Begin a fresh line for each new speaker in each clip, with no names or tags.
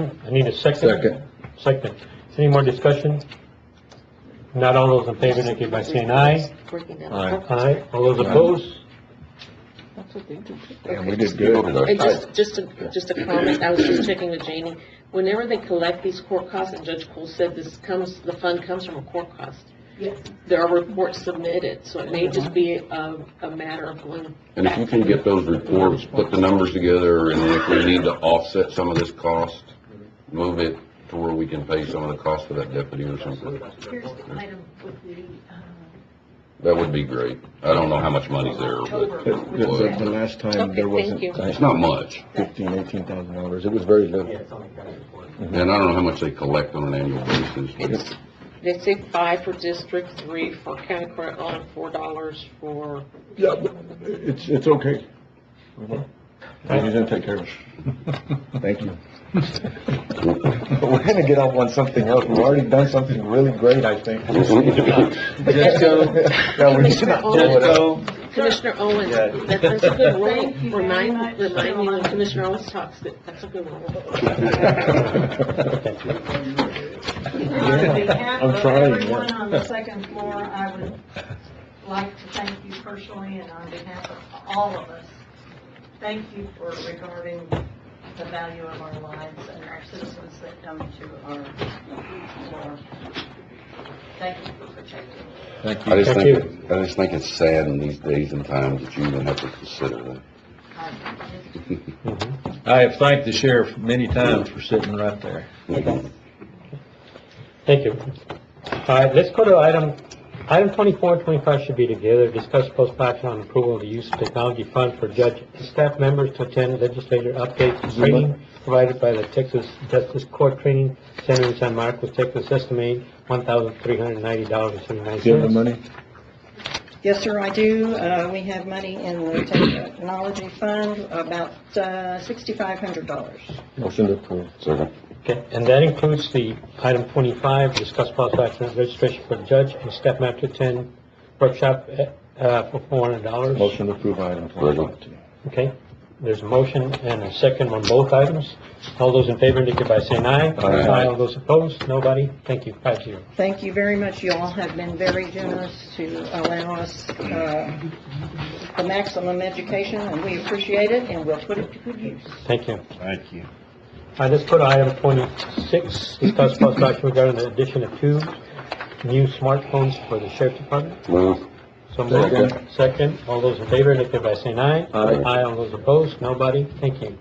I need a second.
Second.
Second. Any more discussion? Not all those in favor, indicate by saying aye.
Breaking down.
Aye.
Aye. All those opposed?
That's what they do.
And we did good.
And just, just, a- just a comment, I was just checking with Janie, whenever they collect these court costs, and Judge Cole said this comes, the fund comes from a court cost.
Yes.
There are reports submitted, so it may just be a, a matter of going
And if you can get those reports, put the numbers together, and if we need to offset some of this cost, move it to where we can pay some of the cost of that deputy or something,
Here's the item with the, uh,
that would be great. I don't know how much money's there,
October.
but
The, the last time, there
Okay,
wasn't
thank you.
it's not much.
fifteen, eighteen thousand dollars, it was very little. Mm-hmm.
And I don't know how much they collect on an annual basis.
It's, they say five for District Three for county court and four dollars for,
Yeah, but it's, it's okay. He's gonna take care of it. Thank you. But we're gonna get off on something else, we've already done something really great, I think. Yeah, we should not blow it up.
Commissioner Owens,
Yeah.
that- that's a good role.
Thank you very much.
Remind, remind me when Commissioner Owens talks, that, that's a good role.
um, On behalf
I'm
of
trying,
everyone
yeah.
on the second floor, I would like to thank you personally and on behalf of all of us. Thank you for regarding the value of our lives and our citizens that come to our floor. Thank you for protecting.
Thank
I
you.
just think, I just think it's sad in these days and times that you even have to consider that.
us.
I have thanked the sheriff many times for sitting right there.
Mm-hmm.
Thank you. All right, let's go to item, item 24 and 25 should be together. Discuss possible action on approval of the use of technology fund for judge and staff members to attend legislature updates and training provided by the Texas Justice Court Training Center in San Marcos, Texas, estimated $1,390.79.
Do you have the money?
Yes, sir, I do. Uh, We have money in the technology fund, about uh, $6,500.
Motion to approve.
Second.
Okay, and that includes the item 25, discuss possible action on registration for judge and staff member to attend workshop uh, for $400.
Motion to approve item twenty-five.
Okay, there's a motion and a second on both items. All those in favor indicate by saying aye.
Aye.
All those opposed, nobody? Thank you, five zero.
Thank you very much. You all have been very generous to allow us uh, the maximum education, and we appreciate it, and we'll put it to good use.
Thank you.
Thank you.
All right, let's go to item twenty-six, discuss possible action regarding the addition of two new smartphones for the sheriff's department.
Move.
So moved. Second, all those in favor indicate by saying aye.
Aye.
Aye, all those opposed, nobody? Thank you.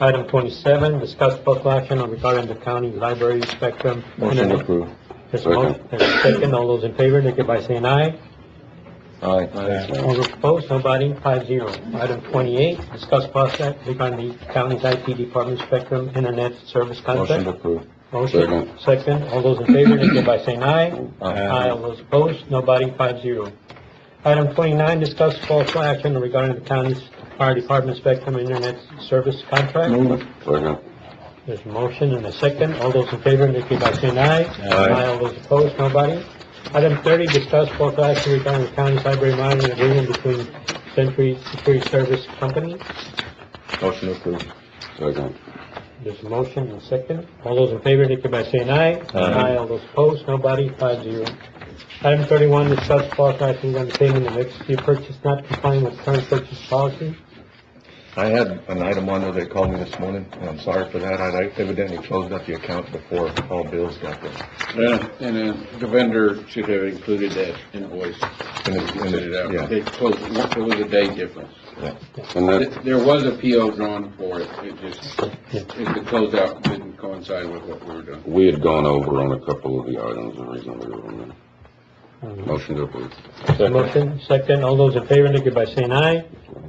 Item twenty-seven, discuss possible action on regarding the county library spectrum.
Motion to
internet-
approve.
There's a motion, there's a second, all those in favor indicate by saying aye.
Aye.
All those opposed, nobody, five zero. Item twenty-eight, discuss possible act regarding the county's IT department spectrum internet service
Motion to
contract.
approve.
Motion, second, all those in favor, indicate by saying aye. Aye, all those opposed, nobody, five zero. Item twenty-nine, discuss possible action regarding the county's fire department spectrum internet service contract.
Move.
Second.
There's a motion and a second. All those in favor indicate by saying aye.
Aye.
All those opposed, nobody. Item thirty, discuss possible action regarding the county's library monitoring agreement between Century Security Service Company.
Motion to approve.
Second.
There's a motion and a second. All those in favor indicate by saying aye.
Aye.
All those opposed, nobody, five zero. Item thirty-one, discuss possible action regarding the payment of emergency purchase not complying with current purchase policy.
I had an item on there, they called me this morning, and I'm sorry for that, I evidently closed out the account before all bills got there.
Yeah, and uh, the vendor should have included that invoice,
And it's- and
sent it
it's-
out.
yeah.
They closed, it. there was a day difference.
And that,
There was a PO drawn for it, it just, it- the closeout didn't coincide with what we were doing.
We had gone over on a couple of the items, the reason we were on that. Motion to approve.
Motion, second. All those in favor indicate by saying aye.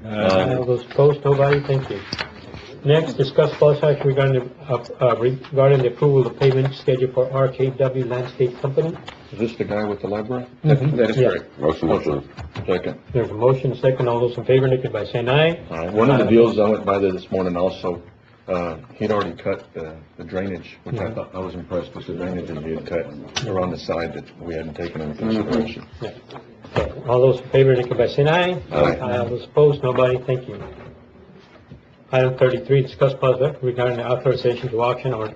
Aye.
All those opposed, nobody, thank you. Next, discuss possible action regarding, the- uh, uh, regarding the approval of payment schedule for RKW Landscape Company.
Is this the guy with the library?
That is
Yeah.
correct.
Motion to approve.
Second.
There's a motion, second, all those in favor indicate by saying aye.
All right, one of the deals I went by there this morning also, uh, he'd already cut the the drainage, which I thought, I was impressed with the drainage that he had cut around the side that we hadn't taken into consideration.
Okay, All those in favor indicate by saying aye.
Aye.
All those opposed, nobody, thank you. Item thirty-three, discuss possible action regarding the authorization to auction or